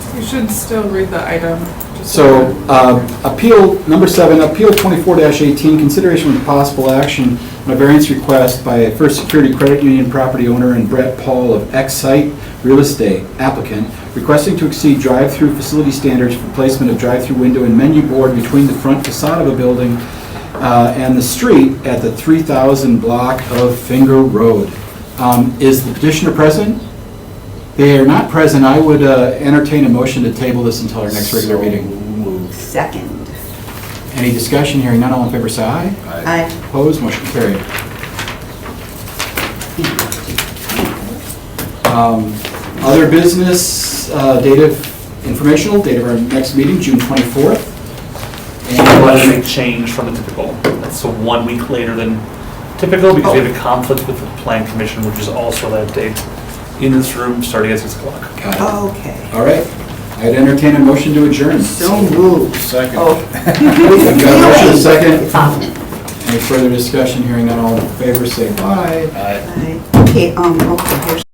You should still read the item. just So, that- um, appeal, number seven, appeal twenty-four eighteen, consideration with possible action on a variance request by First Security Credit Union property owner and Brett Paul of Excite Real Estate applicant, requesting to exceed drive-through facility standards for placement of drive-through window and menu board between the front facade of a building uh, and the street at the three thousand block of Finger Road. Um, Is the petitioner present? They are not present. I would uh, entertain a motion to table this until our next regular meeting. Second. Any discussion? Hearing none, all in favor, say aye. Aye. Opposed, motion carried. Um, Other business, uh, date of informational, date of our next meeting, June 24th. Well, And that's a big change from the typical. That's a one week later than typical because we have a conflict with the plan commission, which is also that date, in this room, starting at 6 o'clock. Got it. Okay. uh, All right, I'd entertain a motion to adjourn. So moved. Second. Oh. We've got a motion, a It's second. on. Any further discussion? Hearing none, all in favor, say aye. Aye. Aye. Okay, um, okay, here's